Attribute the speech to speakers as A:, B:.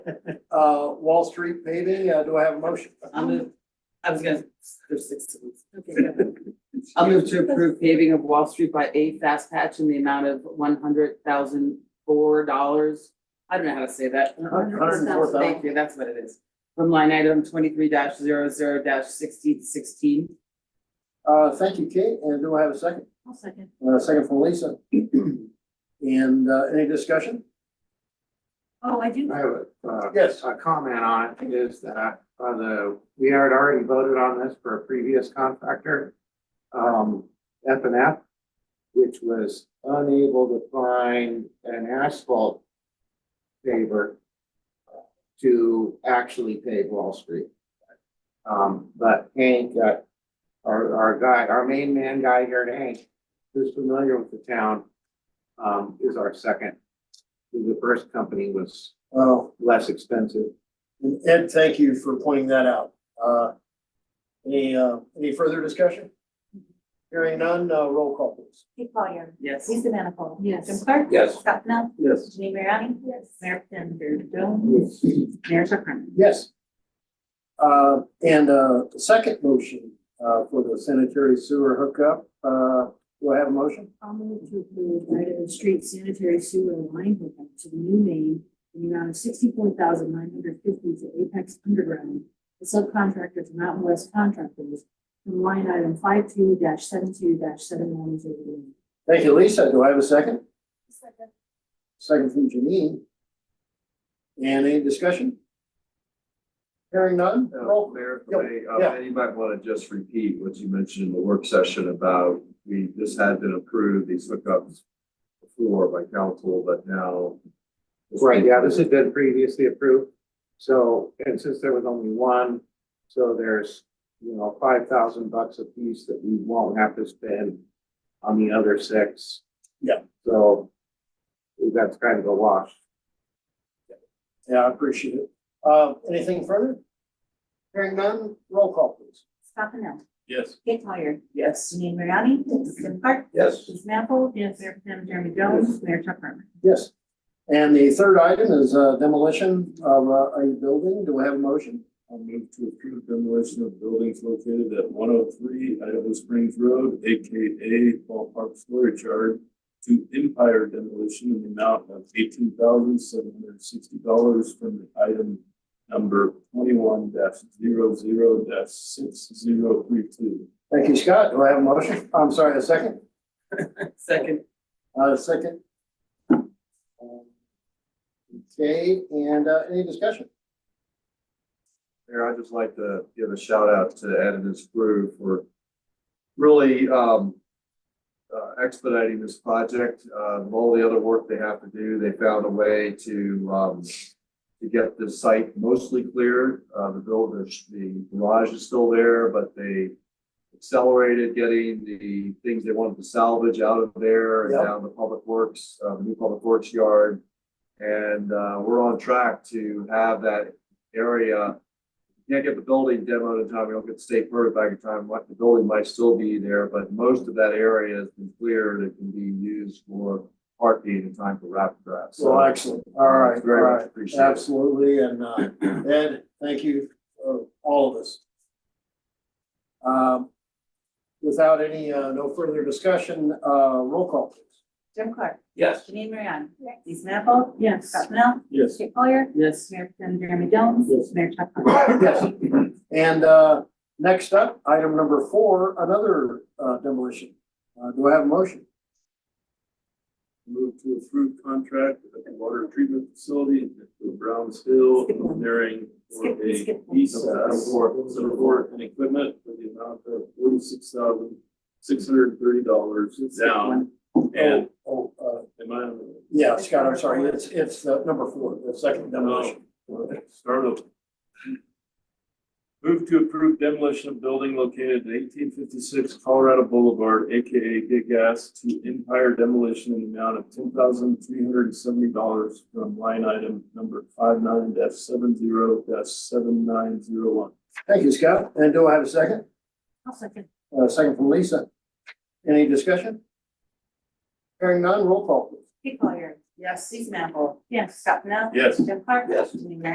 A: uh, Wall Street paving, uh, do I have a motion?
B: I'll move, I was gonna, there's six. of us.
C: Okay, go ahead.
B: I'll move to approve paving of Wall Street by A Fast Patch in the amount of one hundred thousand four dollars. I don't know how to say that.
C: $104,000.
B: Thank you, that's what it is. From line item twenty-three 0 sixteen sixteen.
A: Uh, thank you, Kate, and do I have a second?
C: I'll second.
A: Uh, second from Lisa. And, uh, any discussion?
C: Oh, I do.
D: I have a, uh,
A: Yes.
D: a comment on it is that, uh, the, we had already voted on this for a previous contractor, um, F and F, which was unable to find an asphalt paver to actually pave Wall Street. Um, but Hank, uh, our, our guy, our main man guy here, Hank, who's familiar with the town, um, is our second. The first company was
A: Well,
D: less expensive.
A: and Ed, thank you for pointing that out. Uh, any, uh, any further discussion? Hearing none, uh, roll call please.
C: Kate Collier.
B: Yes.
C: Lisa Manifold.
E: Yes.
C: Jim Clark.
D: Yes.
C: Scott Pennell.
A: Yes.
C: Janine Mariani. Yes. Mayor Tim.
B: Mayor Tucker.
A: Yes. Uh, and, uh, the second motion, uh, for the sanitary sewer hookup, uh, do I have a motion?
E: I'll move to approve item street sanitary sewer and line hookup to the new main in the amount of sixty-four thousand nine hundred fifty to Apex Underground. The subcontractor to Mountain West Contractors from line item five-two dash seven-two dash seven-one zero.
A: Thank you, Lisa. Do I have a second? Second from Janine. And any discussion? Hearing none,
F: Uh,
A: roll.
F: Mayor, if
A: Yep,
F: I may,
A: yeah.
F: uh, and you might want to just repeat what you mentioned in the work session about, we, this had been approved, these hookups before by council, but now.
D: Right, yeah, this has been previously approved. So, and since there was only one, so there's, you know, five thousand bucks a piece that we won't have to spend on the other six.
A: Yeah.
D: So that's kind of a wash.
A: Yeah, I appreciate it. Uh, anything further? Hearing none, roll call please.
C: Scott Pennell.
F: Yes.
C: Kate Collier.
B: Yes.
C: Janine Mariani. Yes. Jim Clark.
F: Yes.
C: Lisa Manifold. Yes. Mayor Tim. Jeremy Jones. Mayor Chuck Harmon.
A: Yes. And the third item is uh, demolition of uh, a building. Do I have a motion?
G: I'll move to approve demolition of buildings located at one oh three Idaho Springs Road, AKA Ballpark Storage Yard to Empire Demolition in the amount of eighteen thousand seven hundred and sixty dollars from the item number twenty-one 0 six zero three two.
A: Thank you, Scott. Do I have a motion? I'm sorry, a second?
B: Second.
A: Uh, second. Um, Okay, and uh, any discussion?
F: Mayor, I'd just like to give a shout out to Ed and his crew for really um, uh, expediting this project. Uh, with All the other work they have to do, they found a way to um, to get the site mostly cleared. Uh, The build, the the garage is still there, but they accelerated getting the things they wanted to salvage out of there and
A: Yep.
F: down to Public Works, uh, the new Public Works yard. And uh, we're on track to have that area can't get the building demoed in time, we don't get the state permit back in time, like, the building might still be there, but most of that area has been cleared, it can be used for parking in time for rapid draft, so.
A: Well, excellent. All right, all
F: Very
A: right.
F: much appreciated.
A: Absolutely, and uh, Ed, thank you for all of this. Um, Without any, uh, no further discussion, uh, roll call please.
C: Jim Clark.
F: Yes.
C: Janine Mariani. Yes. Lisa Manifold.
E: Yes.
C: Scott Pennell.
A: Yes.
C: Kate Collier.
B: Yes.
C: Mayor Tim. Jeremy Jones.
A: Yes.
C: Mayor Chuck Harmon.
A: Yes. And uh, next up, item number four, another uh, demolition. Uh, Do I have a motion?
G: Move to approve contract at the water treatment facility for Browns Hill engineering for
C: Skip,
G: a
C: skip.
G: ESAS support and equipment for the amount of forty-six thousand, six hundred and thirty dollars down. And,
A: Oh, uh,
G: am I, on
A: yeah, Scott, I'm sorry, it's, it's uh, number four, the second demolition.
G: the- start over. Move to approve demolition of building located at eighteen fifty-six Colorado Boulevard, AKA Big Gas, to Empire Demolition in the amount of ten thousand three hundred and seventy dollars from line item number five nine dash seven zero dash seven nine zero one.
A: Thank you, Scott. And do I have a second?
C: I'll second.
A: Uh, Second from Lisa. Any discussion? Hearing none, roll call please.
C: Kate Collier.
B: Yes.
C: Lisa Manifold.
E: Yes.
C: Scott Pennell.
G: Yes.
C: Jim Clark.
F: Yes.
C: Janine Mariani.